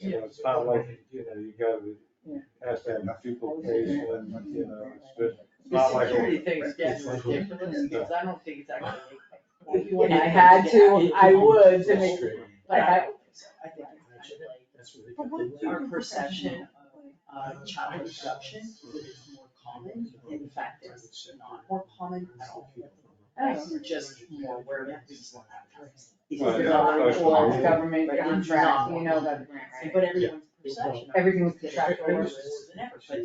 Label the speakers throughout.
Speaker 1: You know, it's not like, you know, you
Speaker 2: Yeah.
Speaker 1: gotta, has to have people patient, you know, it's just, it's
Speaker 2: The
Speaker 1: not like.
Speaker 2: security thing is getting
Speaker 1: It's-
Speaker 2: ridiculous, because I don't think it's actually.
Speaker 3: If
Speaker 2: you want
Speaker 3: I had to, I would to make, like,
Speaker 2: I
Speaker 3: I,
Speaker 2: don't think so. I think it's kind of
Speaker 4: That's where they
Speaker 5: But
Speaker 4: got
Speaker 5: what
Speaker 4: the
Speaker 5: if
Speaker 2: like
Speaker 5: you-
Speaker 4: labor.
Speaker 2: our perception of uh, child abduction is more common, in fact, it's not more
Speaker 3: Oh.
Speaker 2: common at all. We're just more aware of these.
Speaker 3: it's
Speaker 1: Well, yeah,
Speaker 3: not
Speaker 1: social
Speaker 3: for
Speaker 1: media.
Speaker 3: government
Speaker 2: But it's
Speaker 3: contract,
Speaker 2: not.
Speaker 3: you know that,
Speaker 2: But everyone's perception. of
Speaker 3: everything was
Speaker 2: the
Speaker 3: contractual.
Speaker 2: worse than ever, but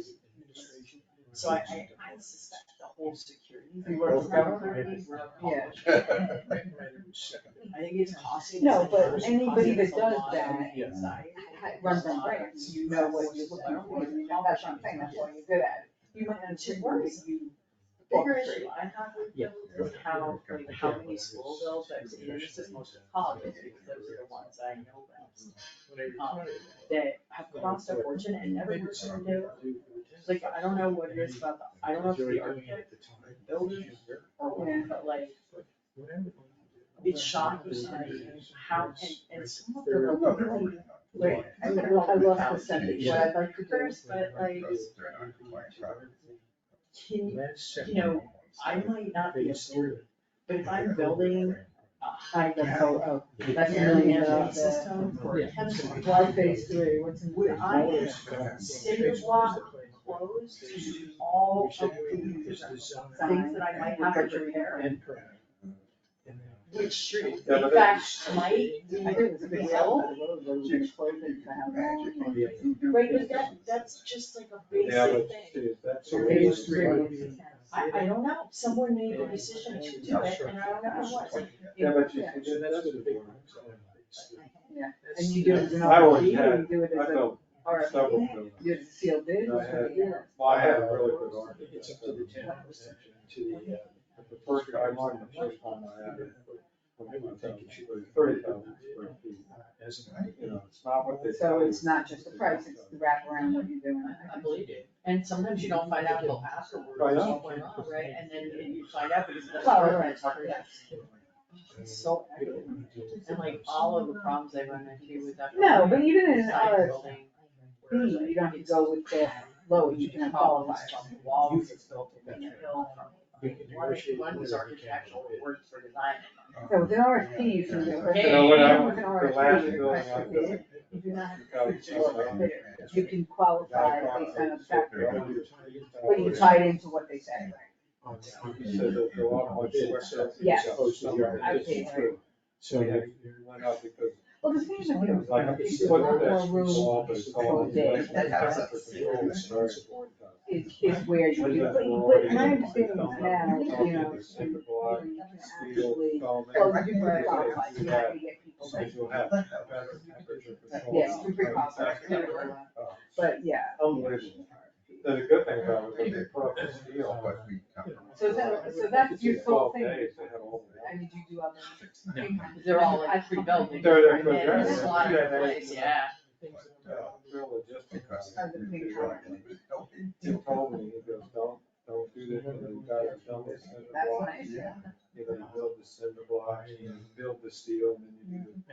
Speaker 2: So I, I, I suspect the whole security.
Speaker 3: You work for
Speaker 1: government?
Speaker 3: Yeah.
Speaker 2: I think it's costing.
Speaker 3: No,
Speaker 2: us-
Speaker 3: but anybody that
Speaker 2: it's costing us a
Speaker 3: does
Speaker 2: lot
Speaker 3: that
Speaker 2: of anxiety.
Speaker 3: Runs on grants, you know what you're looking for, you know, that's what I'm saying, that's why you're good at it. You might
Speaker 2: And
Speaker 3: not
Speaker 2: to
Speaker 3: to
Speaker 2: worry,
Speaker 3: worry.
Speaker 2: you.
Speaker 3: Figure it
Speaker 2: Issue I have with
Speaker 4: Yeah.
Speaker 2: them is how, like, how many school bills I've seen, and this is mostly colleges, because those are the ones I know best. um, That have cost a fortune and never worked in a day. Like, I don't know what it is about the, I don't know if it's the architect building or what, but like,
Speaker 4: It's shocking to me
Speaker 2: how, and, and some of them are really
Speaker 3: Wait, I lo- I lost the sentence, what I'd like to do is
Speaker 2: first, but like, can, you- you know, I might not be a student, but if I'm building a high
Speaker 3: find the
Speaker 2: level
Speaker 3: photo,
Speaker 2: that's
Speaker 3: that's a million
Speaker 2: management
Speaker 3: dollars.
Speaker 2: system for
Speaker 4: Yeah.
Speaker 2: chemistry.
Speaker 3: Why phase three, what's in?
Speaker 2: Would I consider block closed to all of the things that I might have to repair? Which street,
Speaker 1: Yeah,
Speaker 2: in
Speaker 1: but
Speaker 2: fact, might,
Speaker 3: I think it's a big
Speaker 2: will, right, but that, that's just like a
Speaker 1: Yeah,
Speaker 2: basic
Speaker 1: but
Speaker 2: thing.
Speaker 1: see, that's.
Speaker 3: So
Speaker 1: a
Speaker 3: maybe
Speaker 1: waste.
Speaker 3: it's three.
Speaker 2: I, I don't know, someone made the decision to do it, and I don't know what.
Speaker 1: Yeah, but you,
Speaker 3: Yeah.
Speaker 1: you do that with the-
Speaker 3: And you do it as an
Speaker 1: I always
Speaker 3: RFP, or you
Speaker 1: had-
Speaker 3: do it
Speaker 1: I
Speaker 3: as a,
Speaker 1: built
Speaker 3: or
Speaker 1: several buildings.
Speaker 3: you do it as a sealed bid,
Speaker 1: I
Speaker 3: or
Speaker 1: had-
Speaker 3: you do
Speaker 1: Well, I had a really good architect.
Speaker 4: It's up to the town. To the, uh,
Speaker 1: The first guy, I learned the first time I had it. Thirty thousand square feet,
Speaker 4: As an
Speaker 1: uh, you know, it's not what they.
Speaker 3: it. so it's not just the price, it's the wraparound, what you're doing.
Speaker 2: I believe you. And sometimes you don't find out until afterwards
Speaker 1: I
Speaker 2: what's
Speaker 1: know.
Speaker 2: going on, right? And then you find out because that's.
Speaker 3: Well, right.
Speaker 2: So, echoey. and like all of the problems I run into with that.
Speaker 3: No, but even in an
Speaker 2: side
Speaker 3: RFP,
Speaker 2: building, where, like,
Speaker 3: you don't have to go with the lowest, you can qualify.
Speaker 2: It's from the Walls it's built in the hill from, one, one was architectural, it worked for design.
Speaker 3: So with an RFP, you can do it.
Speaker 2: You know what,
Speaker 1: I-
Speaker 3: With an
Speaker 1: the
Speaker 3: RFP,
Speaker 1: last
Speaker 3: you
Speaker 1: building
Speaker 3: request
Speaker 1: I
Speaker 3: a bid,
Speaker 1: built-
Speaker 3: You do not have
Speaker 1: Because,
Speaker 3: to
Speaker 1: uh,
Speaker 3: bid. You can qualify based on the fact, but you tie it into what they say.
Speaker 1: Oh, He said that the lot was worth so-
Speaker 3: Yes.
Speaker 1: Yeah.
Speaker 3: I see, right.
Speaker 1: So they went out because
Speaker 3: Well, the thing is,
Speaker 1: it was like a
Speaker 3: It's
Speaker 1: foot
Speaker 3: more
Speaker 1: that's
Speaker 3: room
Speaker 1: small, but it's all-
Speaker 3: for big.
Speaker 1: That's
Speaker 3: That's
Speaker 1: what
Speaker 3: us.
Speaker 1: the old story.
Speaker 3: is, is where you
Speaker 1: Ones
Speaker 3: do,
Speaker 1: that
Speaker 3: but,
Speaker 1: were
Speaker 3: but my
Speaker 1: already-
Speaker 3: understanding is now, you know,
Speaker 1: It's like a block,
Speaker 3: you can
Speaker 1: steel,
Speaker 3: actually,
Speaker 1: foam,
Speaker 3: well,
Speaker 1: and-
Speaker 3: you can qualify, you
Speaker 1: Yeah.
Speaker 3: have to get people that,
Speaker 1: Because you'll have better temperature control.
Speaker 3: yes, you can pre-qualify. But, yeah,
Speaker 1: Unbelievable. The good thing about it was they put up the steel.
Speaker 5: But we come from-
Speaker 3: so that, so that's your sole
Speaker 1: Twelve
Speaker 3: thing,
Speaker 1: days, they had all the-
Speaker 3: I mean, you do other.
Speaker 2: They're all like pre-built.
Speaker 1: They're- they're
Speaker 2: And there's a lot of
Speaker 1: pre-built.
Speaker 2: place, yeah.
Speaker 1: Real logistics.
Speaker 5: Because-
Speaker 3: Of the big company.
Speaker 1: He told me, he goes, don't, don't do this, and the guy that built the cinder
Speaker 3: That's
Speaker 1: block,
Speaker 3: nice.
Speaker 1: you know, you build the cinder block, you build the steel, and then you do,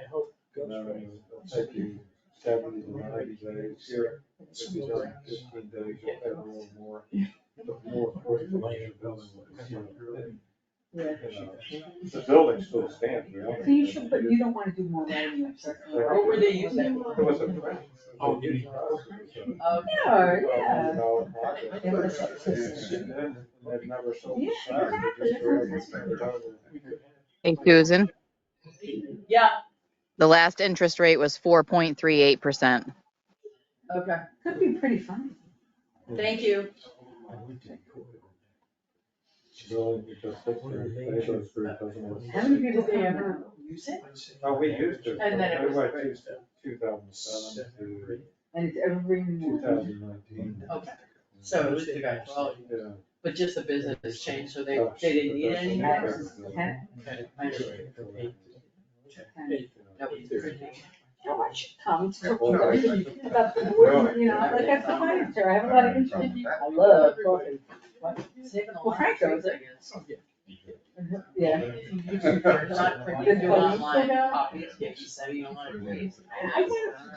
Speaker 1: you know, it'll take you seventy to ninety days here. If you do fifteen days, you'll have a little more, the more forty-five year building. was, you know,
Speaker 3: Yeah.
Speaker 1: you know. The building still stands, really.
Speaker 3: So you should, but you don't wanna do more than you have.
Speaker 1: What
Speaker 2: were they using?
Speaker 1: It was a.
Speaker 4: Oh, you-
Speaker 2: Oh,
Speaker 3: No, yeah.
Speaker 1: $12,000 project.
Speaker 3: It was-
Speaker 1: And then they've never sold the
Speaker 3: Yeah,
Speaker 1: sign, they just were able to turn it over.
Speaker 6: Hey, Susan,
Speaker 2: yeah,
Speaker 6: the last interest rate was 4.38%.
Speaker 2: okay,
Speaker 3: Could be pretty fun.
Speaker 2: thank you.
Speaker 1: Really, because that's their- they go through it, doesn't work.
Speaker 3: How many people do you ever use it?
Speaker 1: Oh, we used to.
Speaker 2: And then it was-
Speaker 1: Two thousand seven to
Speaker 3: And it's ever bringing
Speaker 1: two
Speaker 3: more.
Speaker 1: thousand nineteen.
Speaker 2: Okay, so it was the guy, well,
Speaker 1: Yeah.
Speaker 2: but just the business changed, so they, they didn't need any houses.
Speaker 3: Ten?
Speaker 2: That was pretty-
Speaker 3: How much, Tom, it's so
Speaker 1: Well,
Speaker 3: crazy about the board, you know, I'm like, that's the furniture, I have a lot of interest. I love coffee.
Speaker 2: Saving a
Speaker 3: Well,
Speaker 2: lot of
Speaker 3: Franco
Speaker 2: trees,
Speaker 3: is-
Speaker 2: I guess.
Speaker 3: Yeah.
Speaker 2: Not when you do online copies, get you, so you don't want to.
Speaker 3: I went